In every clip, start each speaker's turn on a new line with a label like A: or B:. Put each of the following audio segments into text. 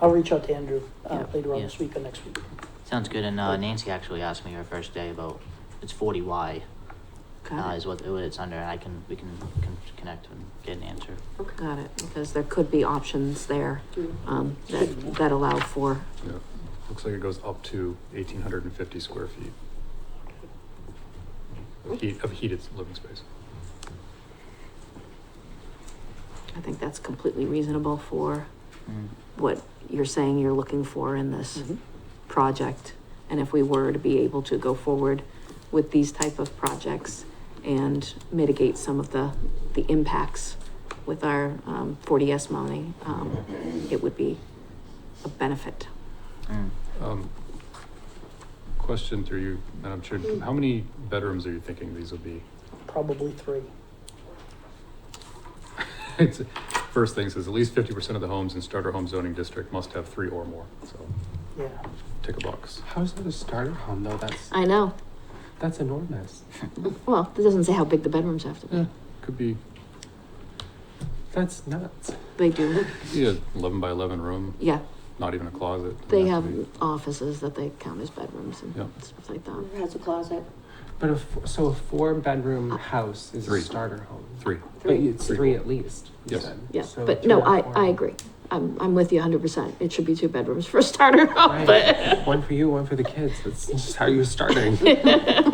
A: I'll reach out to Andrew, uh,
B: Yeah,
A: later on
B: yeah.
A: this week or next week.
B: Sounds good, and uh, Nancy actually asked me her first day about, it's forty Y, uh,
C: Got
B: is
C: it,
B: what, what it's under, and I can, we can, can connect and get an answer.
D: Okay.
C: got it, because there could be options there, um, that, that allow for,
E: Yeah, looks like it goes up to eighteen hundred and fifty square feet. Of heat, of heated living space.
C: I think that's completely reasonable for
B: Mm.
C: what you're saying you're looking for in this project. And if we were to be able to go forward with these type of projects and mitigate some of the, the impacts with our, um, 40S money, um, it would be a benefit.
B: Mm.
E: Um, Question through you, Madam Chair, how many bedrooms are you thinking these will be?
A: Probably three.
E: It's- First thing says at least fifty percent of the homes in starter home zoning district must have three or more, so
A: Yeah.
E: tick a box.
F: How's that a starter home though? That's
C: I know,
F: that's enormous.
C: well, it doesn't say how big the bedrooms have to be.
E: Could be,
F: That's nuts.
C: They do,
E: yeah, eleven by eleven room,
C: yeah,
E: not even a closet. doesn't
C: they
E: have
C: have
E: to be-
C: offices that they count as bedrooms and
E: Yeah.
C: stuff like that.
D: Has a closet.
F: But a f- so a four bedroom house is
E: Three.
F: a starter home.
E: Three,
F: But
D: Three.
F: it's
E: Three.
F: three, at least. you
E: Yes.
F: said.
C: Yeah,
F: So
C: but
F: two
C: no,
F: or
C: I,
F: four.
C: I agree. I'm, I'm with you hundred percent. It should be two bedrooms for a starter,
F: Right.
C: but
F: one for you, one for the kids. That's just how you're starting.
E: third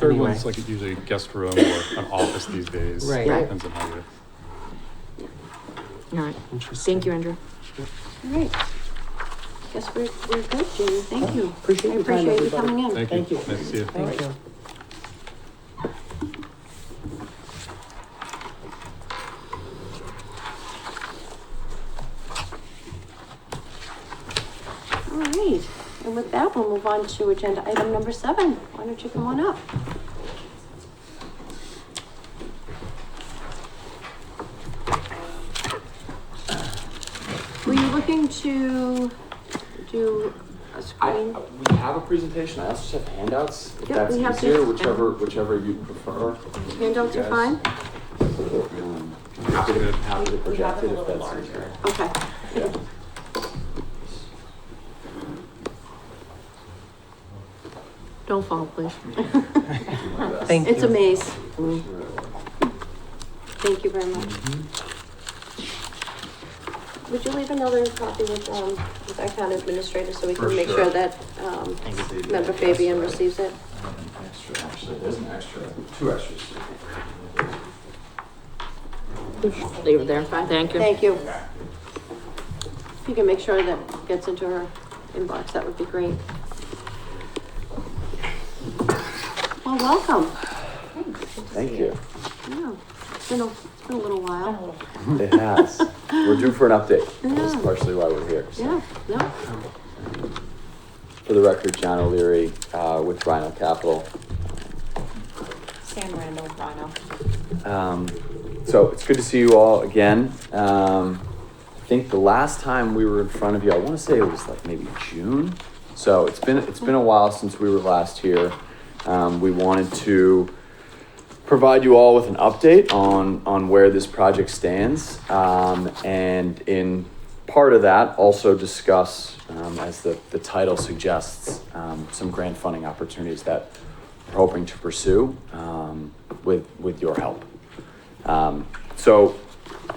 F: Anyway.
E: one's like usually a guest room or an office these days.
F: Right.
C: Right.
E: Depends on how you.
C: all right.
F: Interesting.
C: Thank you, Andrew.
D: All right. Guess we're, we're good, Jamie. Thank you.
A: Appreciate
D: I
A: your time,
D: appreciate you
A: everybody.
D: coming in.
E: Thank you.
A: Thank you.
E: Nice to see you.
F: Thank you.
D: All right. And with that, we'll move on to agenda item number seven. Why don't you come on up? Were you looking to do
G: I,
D: a
G: uh,
D: screen?
G: we have a presentation, I also have handouts, if
D: Yep,
G: that's
D: we have
G: easier,
D: this.
G: whichever, whichever you prefer.
D: Handouts are
G: Yes.
D: fine?
G: Um, Happy to, happy to project it if that's easier.
D: Okay.
G: Yeah.
C: Don't fall, please.
F: Thank
D: It's a
F: you.
D: maze. Thank you very much. Would you leave another copy with, um, with our town administrator so we
G: For
D: can make sure
G: sure.
D: that, um,
B: Thank you.
D: member Fabian receives it?
G: Extra, actually, there's an extra, two extras.
C: Leave it there. Thank you.
D: Thank you. If you can make sure that gets into her inbox, that would be great. Well, welcome.
H: Thank you.
D: Yeah, it's been a, it's been a little while.
H: It has. We're due for an update. That's
D: Yeah.
H: partially why we're here. so.
D: Yeah, no,
H: For the record, John O'Leary uh, with Rhino Capital.
I: Sam Randall, Rhino.
H: Um, So it's good to see you all again. Um, I think the last time we were in front of you, I want to say it was like maybe June. So it's been, it's been a while since we were last here. Um, We wanted to provide you all with an update on on where this project stands, um, and in part of that, also discuss, um, as the the title suggests, um, some grant funding opportunities that we're hoping to pursue um, with with your help. Um, so,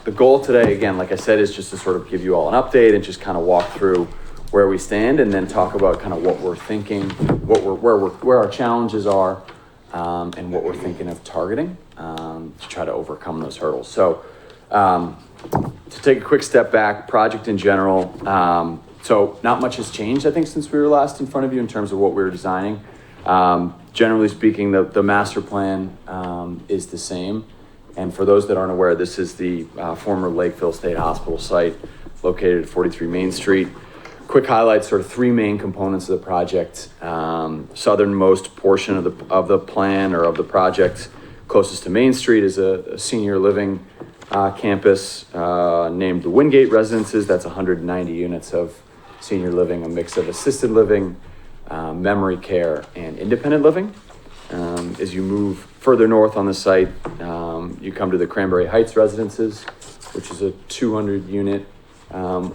H: the goal today, again, like I said, is just to sort of give you all an update and just kind of walk through where we stand, and then talk about kind of what we're thinking, what we're where we're where our challenges are um, and what we're thinking of targeting um, to try to overcome those hurdles. So, um, to take a quick step back, project in general. Um, so, not much has changed, I think, since we were last in front of you in terms of what we were designing. Um, generally speaking, the, the master plan um, is the same. And for those that aren't aware, this is the uh, former Lakeville State Hospital site located at 43 Main Street quick highlights sort of three main components of the project. Um, southernmost portion of the of the plan or of the project, closest to Main Street, is a, a senior living uh, campus uh, named the Wingate Residences. That's 190 units of senior living, a mix of assisted living, uh, memory care, and independent living. Um, as you move further north on the site, um, you come to the Cranberry Heights Residences, which is a 200 unit um,